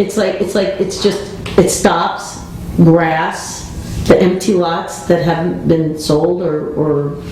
It's like, it's like, it's just, it stops grass, the empty lots that haven't been sold or, or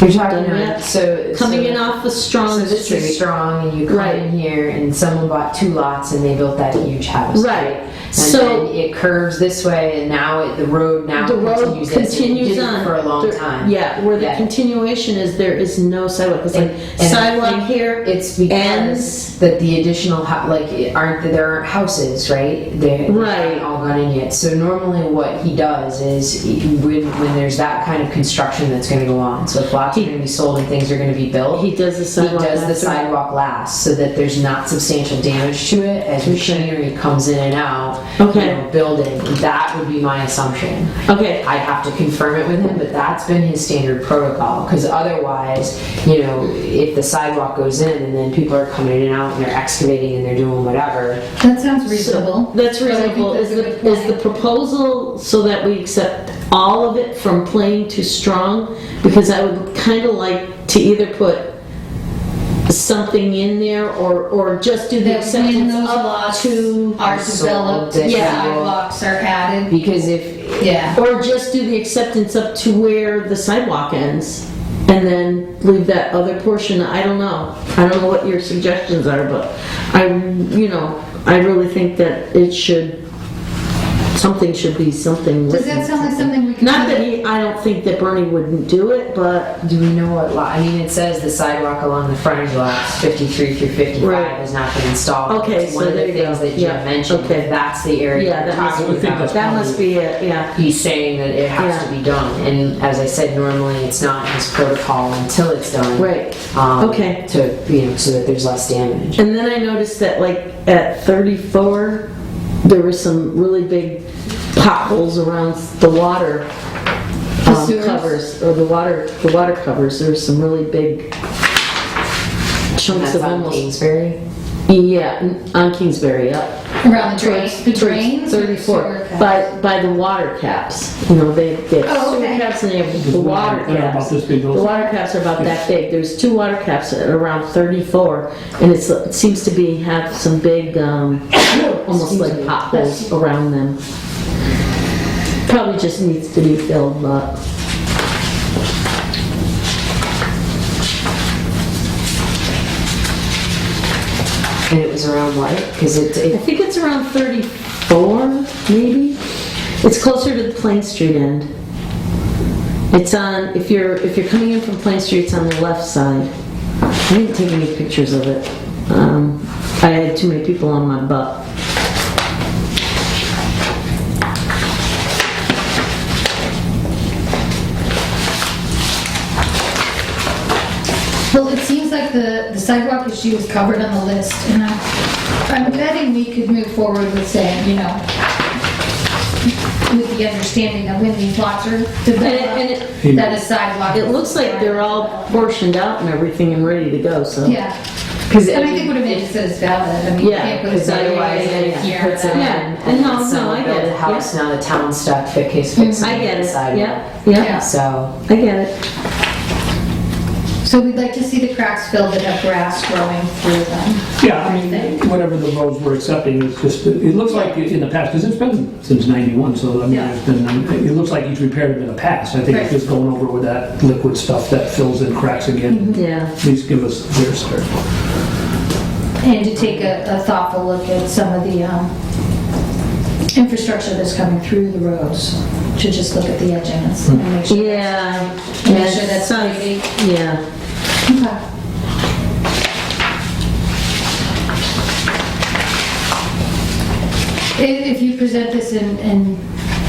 You're talking done about, yet. so. Coming so- in off of So Strong this is Street. strong and you come Right. in here and someone bought two lots and they built that huge house. Right. And So- then it curves this way and now it- the road now The road continues this. and it continues didn't on. For a long There- time. Yeah, where the Yeah. continuation is, there is no sidewalk. It's And- like and I sidewalk think here, It's because Ends. that the additional, hou- like, it- aren't, there aren't houses, right? They they Right. haven't all gone in yet. So normally what he does is, he- when, when there's that kind of construction that's gonna go on, so if lots are He- gonna be sold and things are gonna be built. he does the He sidewalk. does the after. sidewalk last, so that there's not substantial damage to it as machinery comes in and out. you Okay. know, Building, that would be my assumption. Okay, I'd have to confirm it with him, but that's been his standard protocol, because otherwise, you know, if the sidewalk goes in and then people are coming in and out and they're excavating and they're doing whatever, That sounds reasonable. that's But I think reasonable. Is that's a the, good is the proposal so that we accept all of it from plain to strong? Because I would kind of like to either put something in there or, or just do the That when acceptance those up lots to, are So developed, that you- sidewalks are added, because if, yeah. or just do the acceptance up to where the sidewalk ends. And then leave that other portion, I don't know. I don't know what your suggestions are, but I, you know, I really think that it should, something should be something. Does written. that sound like something we could? Not that do? he, I don't think that Bernie wouldn't do it, but do we know what lot, I mean, it says the sidewalk along the frontage lots fifty-three through Right. fifty-five has not been installed. Okay, It's so One of there the you go. things that Yeah, Jim mentioned, okay. if that's the area Yeah, you're that must- talking I think about. that's that must be it, yeah. he's saying that it has Yeah. to be done. And as I said, normally it's not his protocol until it's done. Right. Um, Okay. To, you know, so that there's less damage. And then I noticed that like at 34, there were some really big potholes around the water um, sewers? covers, or the water, the water covers, there were some really big chunks That's of on almost, Kingsbury. yeah, n- on Kingsbury, yeah. Around the drain, the Towards- towards drains? or the sewer 34, cuts? by, by the water caps, you know, they get Oh, sewer okay. caps and they have the They're water About caps. this big, The those- water caps are about that big. There's two water caps at around 34, and it's, it seems to be, have some big, um, almost like potholes around them. Probably just needs to be filled up. And it was around what? Because it, I it, think it's around 34, maybe? It's closer to the Plain Street end. It's on, if you're, if you're coming in from Plain Street, it's on the left side. I didn't take any pictures of it. Um, I had too many people on my butt. Well, it seems like the the sidewalk issue is covered on the list, and I'm I'm betting we could move forward with saying, you know, with the understanding that when these lots are And it- developed, and it- that a sidewalk. It looks like they're all portioned out and everything and ready to go, so. Yeah, because and I think what it makes is valid, I mean, you Yeah, can't put a Because otherwise, sidewalk then in if he here. puts it in, without- Yeah, and no, then no, I someone get builds it, Mm-hmm. a house, now the town's stuck fix- fixing I get the it, sidewalk. yeah, yeah, So, I get it. So we'd like to see the cracks filled that have grass growing through them. yeah, I mean, whatever the roads we're accepting, it's just, it looks like in the past, because it's been since 91, so I mean, Yeah. it's been, um, it looks like each repaired in the past. I think it's Right. just going over with that liquid stuff that fills in cracks again. Mm-hmm. Yeah. Please give us their start. And to take a a thoughtful look at some of the um, infrastructure that's coming through the roads, to just look at the edging and s- and make sure. Yeah. Make yeah, sure that's sounds- pretty. Yeah. Okay. If if you present this and- and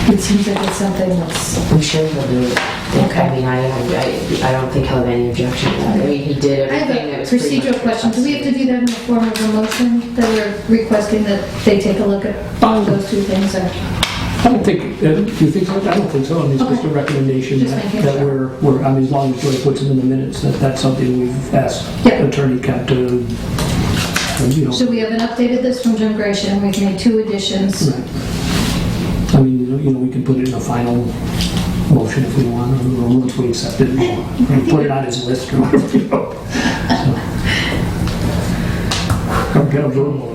it seems like it's something that's, I'm sure he'll do it. Okay. I mean, I, I, I don't think he'll have any objection to that. I mean, he did I have everything a that was pretty much procedural question. Do we have to do that in the form of a motion, that we're requesting that they take a look at those two things? or- I don't think, uh, do you think so? I don't think so. I mean, it's just a recommendation Just that making that sure. we're, we're, I mean, as long as Joy puts it in the minutes, that that's something we've asked Yeah. Attorney Cap to, uh, you know. So we have an updated list from Jim Gratian, we've made two additions. I mean, you know- you know, we can put it in a final motion if we want, or once we accept it, or put it on his list or whatever, you know. So. Come get a verbal,